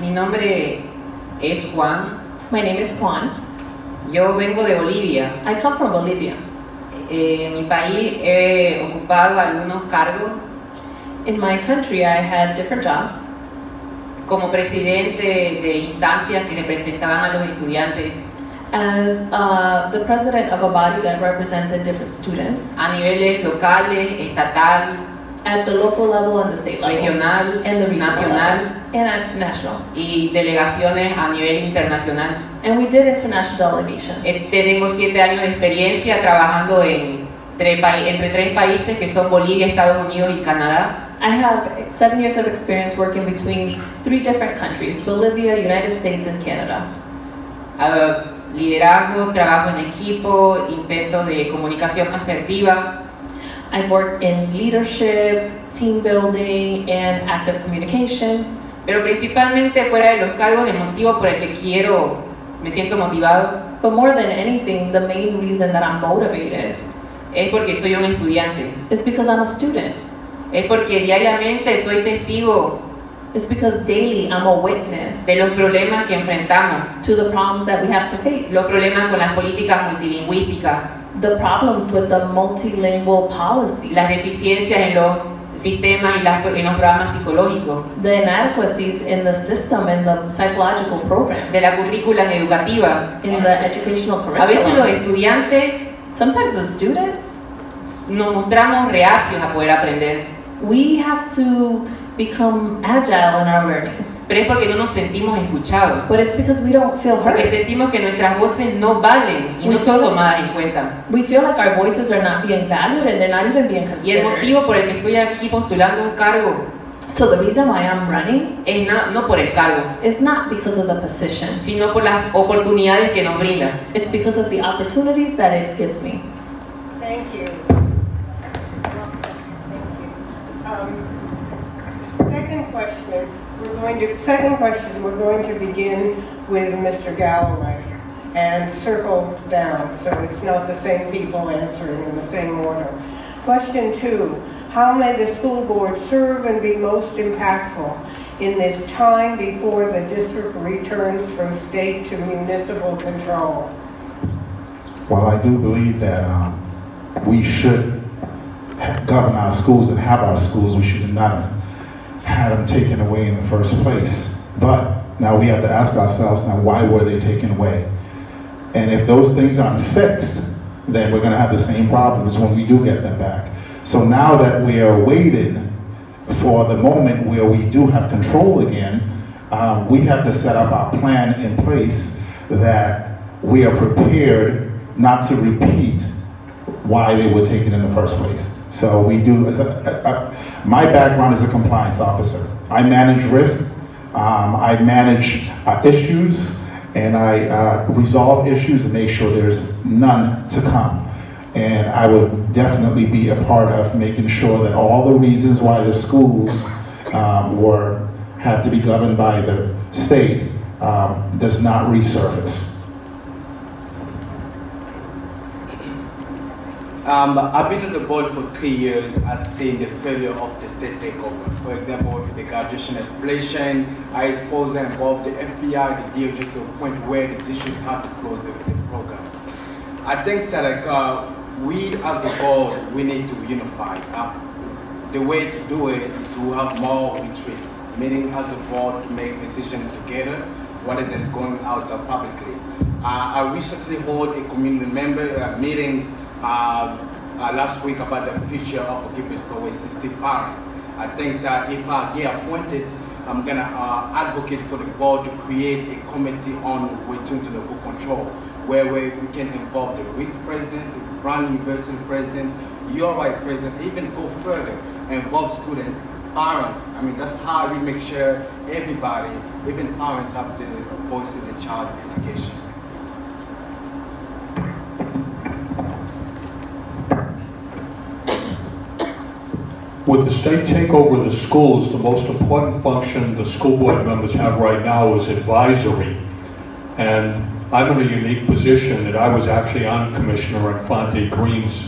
Mi nombre es Juan. My name is Juan. Yo vengo de Bolivia. I come from Bolivia. Eh, en mi país he ocupado algunos cargos In my country, I had different jobs. como presidente de instancias que representaban a los estudiantes As uh, the president of a body that represented different students a niveles locales, estatal, at the local level and the state level, regional, and the regional nacional level, and at national. y delegaciones a nivel internacional. And we did international delegations. Eh, tengo siete años de experiencia trabajando en tres pa- entre tres países que son Bolivia, Estados Unidos y Canadá. I have seven years of experience working between three different countries Bolivia, United States, and Canada. Ah, liderazgo, trabajo en equipo, intentos de comunicación asertiva, I've worked in leadership, team building, and active communication. pero principalmente fuera de los cargos, el motivo por el que quiero, me siento motivado, But more than anything, the main reason that I'm motivated es porque soy un estudiante. is because I'm a student. Es porque diariamente soy testigo It's because daily I'm a witness de los problemas que enfrentamos, to the problems that we have to face. los problemas con las políticas multilingüísticas, The problems with the multilingual policies, las deficiencias en los sistemas y las- en los programas psicológicos, the inadequacies in the system and the psychological programs, de la currícula educativa. in the educational A veces los curriculum. estudiantes Sometimes the students, nos mostramos reacios a poder aprender, we have to become agile in our learning, pero es porque no nos sentimos escuchados, but it's because we don't feel porque heard. sentimos que nuestras voces no valen y no son tomadas en cuenta. We feel like our voices are not being valued and they're not even being Y el considered. motivo por el que estoy aquí postulando un cargo So the reason why I'm running es na- no por el cargo, is not because of the position. sino por las oportunidades que nos brinda. It's because of the opportunities that it gives me. Thank you. One second, thank you. Um, Second question, we're going to, second question, we're going to begin with Mr. Galloway and circle down, so it's not the same people answering in the same order. Question two, how may the school board serve and be most impactful in this time before the district returns from state to municipal control? While I do believe that um, we should ha- govern our schools and have our schools, we should not have had them taken away in the first place. But now we have to ask ourselves now, why were they taken away? And if those things aren't fixed, then we're going to have the same problems when we do get them back. So now that we are waiting for the moment where we do have control again, uh, we have to set up our plan in place that we are prepared not to repeat why they were taken in the first place. So we do, as a, a- a- my background is a compliance officer. I manage risk, um, I manage uh, issues, and I uh, resolve issues and make sure there's none to come. And I would definitely be a part of making sure that all the reasons why the schools um, were, have to be governed by the state um, does not resurface. Um, I've been on the board for three years. I've seen the failure of the state takeover. For example, with the graduation inflation, I exposed and involved the FBI, the DOJ to a point where the district had to close the, the program. I think that like, uh, we as a board, we need to unify. Uh, the way to do it is to have more retreats, meaning as a board to make decisions together rather than going out uh, publicly. Uh, I recently held a community member uh, meetings uh, uh, last week about the future of Givers Tower 60 parents. I think that if I get appointed, I'm gonna uh, advocate for the board to create a committee on return to local control, where we, we can involve the week president, the Brown University president, your right president, even go further, involve students, parents. I mean, that's how you make sure everybody, even parents, have the voice in the child education. With the state takeover of the schools, the most important function the school board members have right now is advisory. And I'm in a unique position that I was actually on Commissioner Infante Green's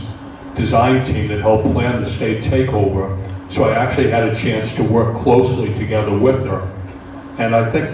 design team that helped plan the state takeover. So I actually had a chance to work closely together with her. And I think